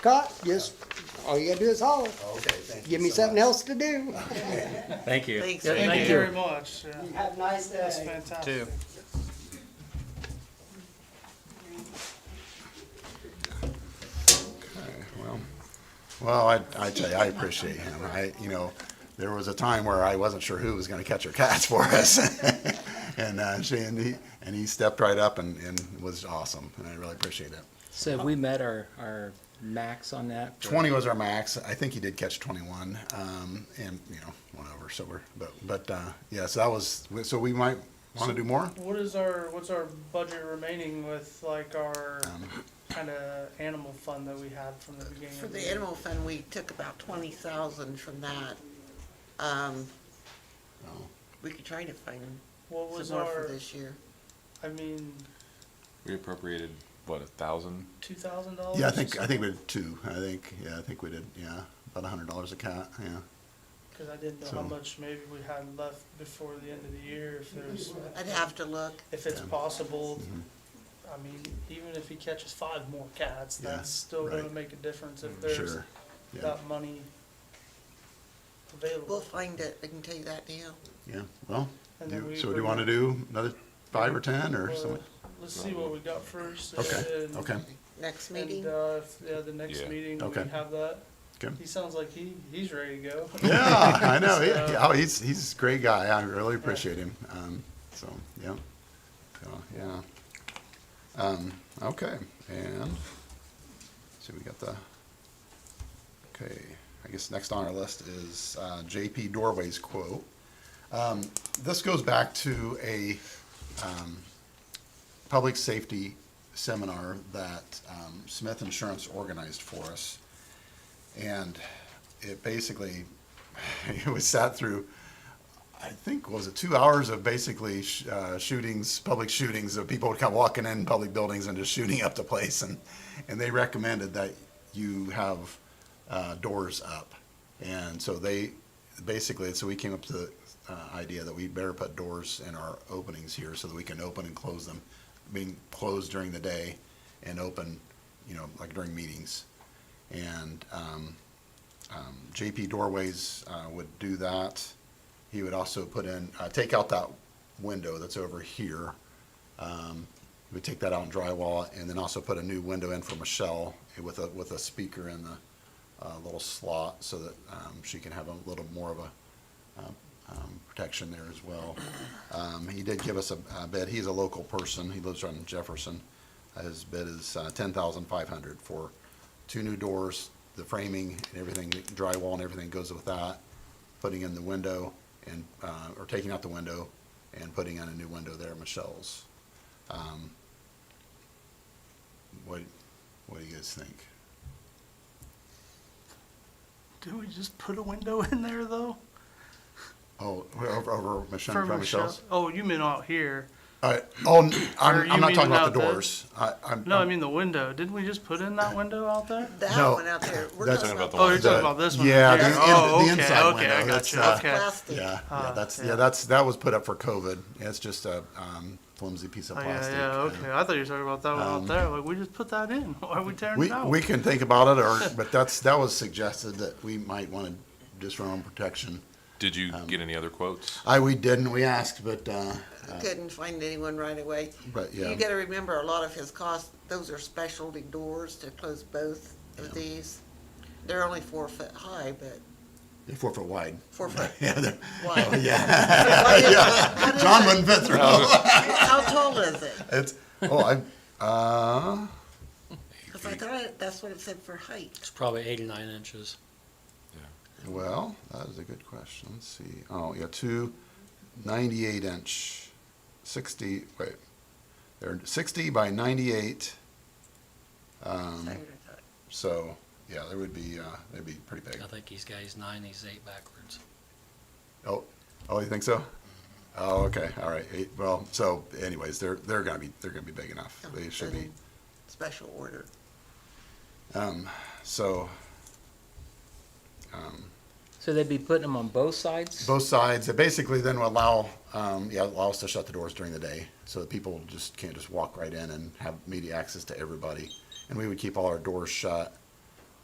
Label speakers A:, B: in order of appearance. A: Scott, just, all you gotta do is holler.
B: Okay, thank you.
A: Give me
B: so
A: something
B: much.
A: else to do.
C: Thank you.
D: Thanks.
C: Yeah,
E: Thank you
C: you.
E: very much. Yeah,
A: Have a nice
E: That's
A: day.
E: fantastic.
B: Well, well, I, I tell you, I appreciate him. I, you know, there was a time where I wasn't sure who was gonna catch her cats for us. And, uh, she, and he, and he stepped right up and, and was awesome, and I really appreciate it.
C: So have we met our, our max on that?
B: Twenty was our max. I think he did catch twenty-one, um, and, you know, one over, so we're, but, but, uh, yeah, so that was, so we might wanna do more?
E: What is our, what's our budget remaining with like our
B: Um,
E: kind of animal fund that we had from the beginning?
D: For
E: of
D: the
E: year?
D: animal fund, we took about twenty thousand from that. Um,
B: Oh.
D: we could try to find
E: What was
D: some more for
E: our,
D: this year.
E: I mean,
F: We appropriated, what, a thousand?
E: two thousand dollars?
B: Yeah, I think, uh, I think we did two. I think, yeah, I think we did, yeah, about a hundred dollars a cat, yeah.
E: Cause I didn't know how
B: So-
E: much maybe we had left before the end of the year, if there's,
D: I'd have to look.
E: if it's possible.
B: Mhm.
E: I mean, even if he catches five more cats,
B: Yeah,
E: that's still gonna
B: right. Mm,
E: make a difference if there's
B: Sure. Yeah,
E: that money
D: We'll
E: available.
D: find it. I can tell you that now.
B: yeah, well,
E: And then
B: do-
E: we
B: so do you
E: bring
B: wanna
E: it-
B: do another five or ten or
E: Or,
B: something?
E: Let's see what we got first.
B: Okay,
E: and-
B: okay,
D: Next meeting?
E: And, uh, if- yeah, the next
F: Yeah.
E: meeting, we
B: Okay.
E: can have that. He
B: okay.
E: sounds like he, he's ready to go.
B: Yeah, I know,
E: So-
B: yeah, oh, he's, he's a great guy. I really appreciate him, um, so, yeah. So, yeah. Um, okay, and, so we got the, okay, I guess next on our list is, uh, JP Doorways quote. Um, this goes back to a, um, public safety seminar that, um, Smith Insurance organized for us. And it basically, it was sat through, I think, was it two hours of basically sh- uh, shootings, public shootings of people kind of walking in public buildings and just shooting up the place, and and they recommended that you have uh, doors up, and so they basically so we came up to the uh, idea that we better put doors in our openings here so that we can open and close them, being closed during the day, and open, you know, like during meetings, and. Um, um, JP Doorways uh, would do that. He would also put in, uh, take out that window that's over here. Um, we take that out and drywall it, and then also put a new window in for Michelle with a, with a speaker in the uh, little slot so that um, she can have a little more of a um, um, protection there as well. Um, he did give us a, a bid. He's a local person. He lives on Jefferson. His bid is uh, ten thousand five hundred for two new doors, the framing and everything, the drywall and everything goes with that. Putting in the window and, uh, or taking out the window and putting in a new window there at Michelle's. Um, What, what do you guys think?
E: Do we just put a window in there though?
B: Oh, we're over, over Michelle, from
E: Michelle-
B: Michelle's?
E: Oh, you mean out here?
B: Uh, oh, n-
E: Or
B: I'm,
E: you
B: I'm not
E: mean
B: talking about the
E: without the-
B: doors. I, I'm.
E: No, I mean the window. Didn't we just put in that window out there?
D: That
B: No.
D: one out there. We're
B: That's-
D: talking
F: Talking about
D: about
F: the
E: Oh,
F: one-
E: you're talking about this one?
B: Yeah,
E: right
B: the
E: here.
B: in-
E: Oh,
B: the
E: okay,
B: inside
E: Okay, I
B: window,
E: got
B: that's,
E: you,
B: uh,
E: okay.
D: plastic.
B: Yeah, yeah,
E: Ah,
B: that's,
E: yeah.
B: yeah, that's, that was put up for COVID. It's just a, um, flimsy piece of
E: Oh, yeah,
B: plastic.
E: yeah,
B: uh,
E: okay. I thought you were talking about that one out
B: Um,
E: there. Like, we just put that in. Why are we tearing
B: We,
E: it out?
B: we can think about it, or, but that's, that was suggested that we might want to just our own protection.
F: Did you get any other quotes?
B: I, we didn't, we asked, but, uh, uh,
D: Couldn't find anyone right away.
B: but yeah.
D: You gotta remember, a lot of his costs, those are specialty doors to close both of these. They're only four foot high, but
B: They're Four foot wide.
D: four foot
B: Yeah, they're-
D: wide.
B: Oh, yeah,
D: What is it? What is
B: John
D: it?
B: wouldn't fit through.
D: How tall is it?
B: It's, oh, I, uh,
D: Because I thought that's what it said for height.
G: It's probably eight or nine inches.
B: well, that is a good question. Let's see. Oh, yeah, two ninety-eight inch, sixty, wait. They're sixty by ninety-eight. Um,
D: That's what I thought.
B: so, yeah, they would be, uh, they'd be pretty big.
G: I think he's got his nine, he's eight backwards.
B: Oh, oh, you think so? Oh, okay, all right. Eight, well, so anyways, they're, they're gonna be, they're gonna be big enough. They should be.
D: "Oh, Special order.
B: Um, so, um,
C: So they'd be putting them on both sides?
B: both sides, it basically then will allow, um, yeah, allow us to shut the doors during the day, so that people just can't just walk right in and have media access to everybody. And we would keep all our doors shut,